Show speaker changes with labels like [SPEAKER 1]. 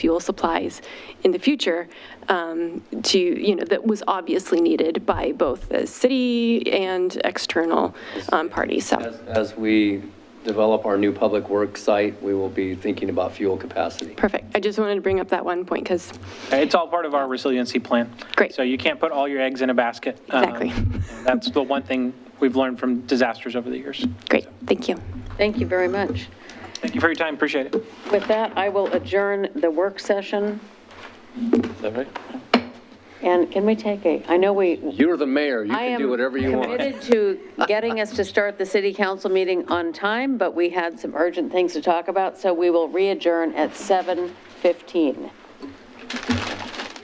[SPEAKER 1] fuel supplies in the future um, to, you know, that was obviously needed by both the city and external um, parties, so.
[SPEAKER 2] As, as we develop our new public works site, we will be thinking about fuel capacity.
[SPEAKER 1] Perfect. I just wanted to bring up that one point because,
[SPEAKER 3] It's all part of our resiliency plan.
[SPEAKER 1] Great.
[SPEAKER 3] So you can't put all your eggs in a basket. Um,
[SPEAKER 1] Exactly.
[SPEAKER 3] That's the one thing we've learned from disasters over the years.
[SPEAKER 1] great, thank you.
[SPEAKER 4] Thank you very much.
[SPEAKER 3] Thank you for your time, appreciate it.
[SPEAKER 4] With that, I will adjourn the work session,
[SPEAKER 2] Is that right?
[SPEAKER 4] and can we take a, I know we,
[SPEAKER 2] You're the mayor, you
[SPEAKER 4] I
[SPEAKER 2] can
[SPEAKER 4] am
[SPEAKER 2] do whatever you want.
[SPEAKER 4] committed to getting us to start the city council meeting on time, but we had some urgent things to talk about, so we will re-adjourn at 7:15.